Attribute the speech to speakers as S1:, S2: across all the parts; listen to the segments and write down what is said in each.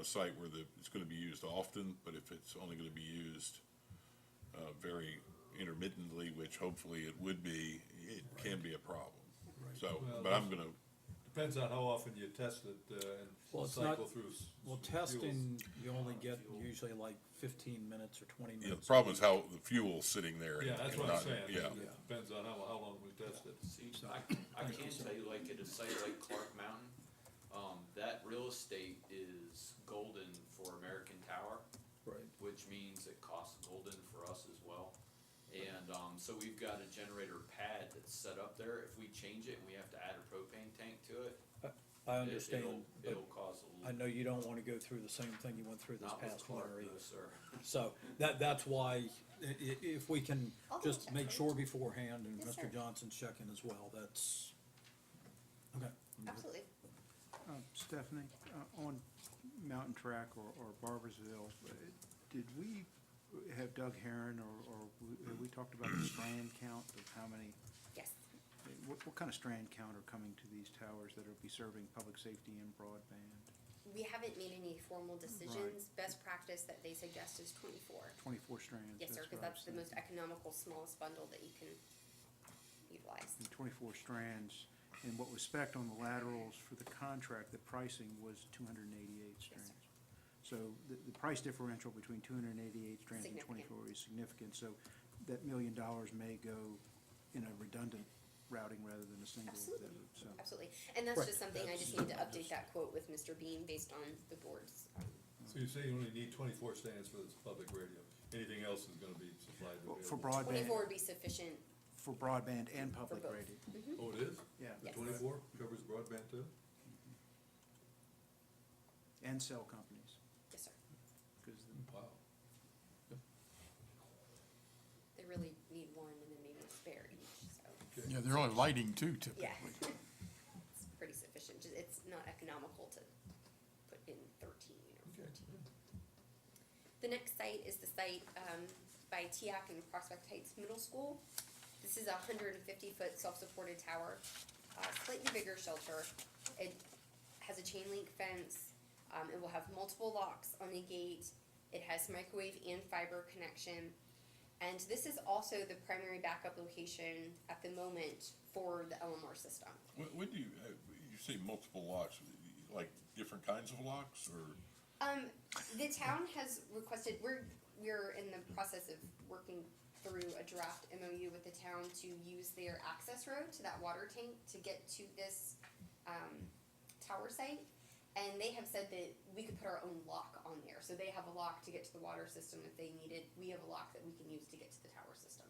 S1: a site where the, it's gonna be used often, but if it's only gonna be used uh, very intermittently, which hopefully it would be, it can be a problem. So,
S2: Well,
S1: but I'm gonna,
S2: Depends on how often you test it uh,
S3: Well,
S2: and
S3: it's not-
S2: cycle through. s-
S3: Well,
S2: fuels.
S3: testing, you only get usually like fifteen minutes or twenty
S1: you know, the
S3: minutes.
S1: problem is how the fuel's sitting there. and-
S2: Yeah, that's
S1: and
S2: what I'm
S1: not-
S2: saying.
S1: Yeah,
S3: Yeah.
S2: It Depends on how, how long we test it.
S4: See, I, I can tell you, like, at a site like Clark Mountain, um, that real estate is golden for American Tower,
S3: Right.
S4: which means it costs golden for us as well. And, um, so we've got a generator pad that's set up there, if we change it and we have to add a propane tank to it,
S3: I
S4: it-
S3: understand,
S4: it'll,
S3: but
S4: it'll cause a
S3: I
S4: little,
S3: know you don't wanna go through the same thing you went through this
S4: not with
S3: past
S4: Clark,
S3: winter
S4: no,
S3: either.
S4: sir.
S3: So that, that's why, i- i- if we can
S5: I'll double
S3: just
S5: check
S3: make
S5: for you.
S3: sure beforehand and
S5: Yes,
S3: Mr.
S5: sir.
S3: Johnson's checking as well, that's, okay.
S5: Absolutely.
S6: Uh, Stephanie, uh, on Mountain Track or or Barbersville, uh, did we have Doug Heron or, or we- have we talked about the strand count of how many,
S5: Yes.
S6: what, what kind of strand count are coming to these towers that will be serving public safety and broadband?
S5: We haven't made any formal decisions. Best practice that they suggest is twenty-four.
S6: Twenty-four strands?
S5: Yes, sir, because
S6: what I
S5: that's the
S6: was
S5: most economical, smallest bundle that you can utilize.
S6: thinking. Twenty-four strands, and what was spec'd on the laterals for the contract, the pricing was two hundred and eighty-eight
S5: Yes, sir.
S6: strands. So the, the price differential between two hundred and eighty-eight strands and
S5: Significant.
S6: twenty-four is significant, so that million dollars may go in a redundant routing rather than a single.
S5: Absolutely.
S6: that- So,
S5: Absolutely. And that's
S3: Right,
S5: just something, I just
S3: that's-
S5: need to update that quote with Mr. Bean based on the board's.
S2: So you say you only need twenty-four stands for this public radio. Anything else is gonna be supplied
S6: Well,
S2: available.
S6: for broadband,
S5: Twenty-four would be sufficient.
S6: for broadband and public
S5: both.
S6: radio,
S2: Oh, it is?
S6: yeah,
S2: The
S5: Yes.
S2: twenty-four covers broadband too?
S6: and cell companies,
S5: Yes, sir.
S6: because
S2: Wow.
S5: They really need one and then maybe a spare each, so.
S2: Okay.
S7: Yeah, they're only lighting too typically.
S5: Yeah. It's pretty sufficient. Just- It's not economical to put in thirteen or
S2: Okay.
S5: The next site is the site um, by TIAC and Prospect Heights Middle School. This is a hundred and fifty-foot self-supported tower, uh, slightly bigger shelter. It has a chain link fence, um, it will have multiple locks on the gate, it has microwave and fiber connection. And this is also the primary backup location at the moment for the LMR system.
S1: when, when do you, uh, you say multiple locks, like different kinds of locks, or?
S5: Um, the town has requested, we're, we're in the process of working through a draft MOU with the town to use their access road to that water tank to get to this, um, tower site. And they have said that we could put our own lock on there, so they have a lock to get to the water system if they need it, we have a lock that we can use to get to the tower system.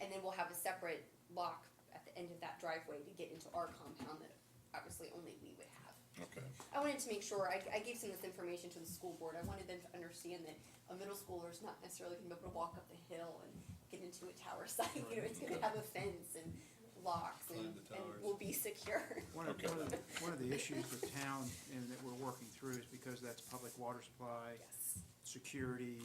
S5: And then we'll have a separate lock at the end of that driveway to get into our compound that obviously only we would have.
S1: Okay.
S5: I wanted to make sure, I, I gave some of this information to the school board, I wanted them to understand that a middle schooler is not necessarily gonna be able to walk up the hill and get into a tower site, you know, it's gonna have a fence and locks
S2: Climb
S5: and,
S2: the
S5: and
S2: towers.
S5: will be secure.
S6: One of,
S1: Okay.
S6: one of, the- one of the issues for town and that we're working through is because that's public water supply,
S5: Yes,
S6: security,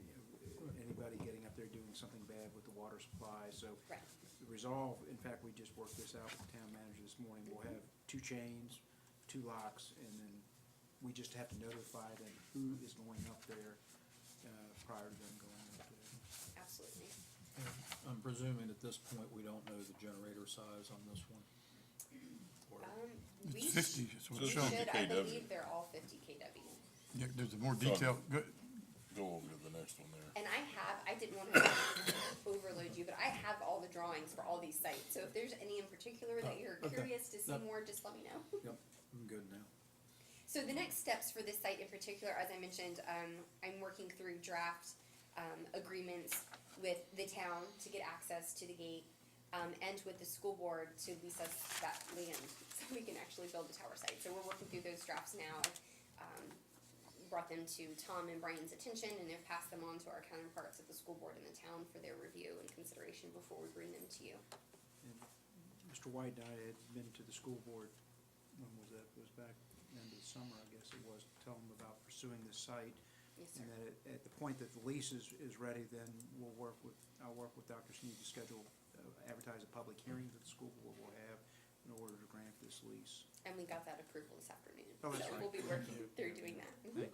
S6: you know, anybody getting up there doing something bad with the water supply, so
S5: right,
S6: the resolve, in fact, we just worked this out with the town manager this morning, we'll have two chains, two locks, and then we just have to notify them who is going up there, uh, prior to them going up there.
S5: absolutely.
S3: I'm presuming at this point, we don't know the generator size on this one. Or-
S5: Um, we,
S7: It's
S5: sh-
S7: fifty, that's what
S5: we
S7: it's
S1: So
S7: showing.
S1: it's
S5: should, I
S1: 50 KW.
S5: believe they're all fifty KW.
S7: Yeah, there's a more detailed, go,
S1: Go over to the next one there.
S5: And I have, I didn't wanna overload you, but I have all the drawings for all these sites, so if there's any in particular that
S3: Oh,
S5: you're
S3: okay.
S5: curious to see
S3: No.
S5: more, just let me know.
S3: Yep, I'm good now.
S5: So the next steps for this site in particular, as I mentioned, um, I'm working through draft, um, agreements with the town to get access to the gate, um, and with the school board to lease us that land, so we can actually build the tower site. So we're working through those drafts now. I've, um, brought them to Tom and Brian's attention, and they've passed them on to our counterparts at the school board and the town for their review and consideration before we bring them to you.
S6: And Mr. White and I had been to the school board, when was that, was back end of the summer, I guess it was, to tell them about pursuing this site.
S5: Yes, sir.
S6: And then at, at the point that the lease is, is ready, then we'll work with, I'll work with Dr. Sneed to schedule, uh, advertise a public hearing that the school board will have. And in order to grant this lease.
S5: and we got that approval this afternoon.
S6: Oh, that's
S5: So
S6: right.
S5: we'll be working through doing that. Mhm.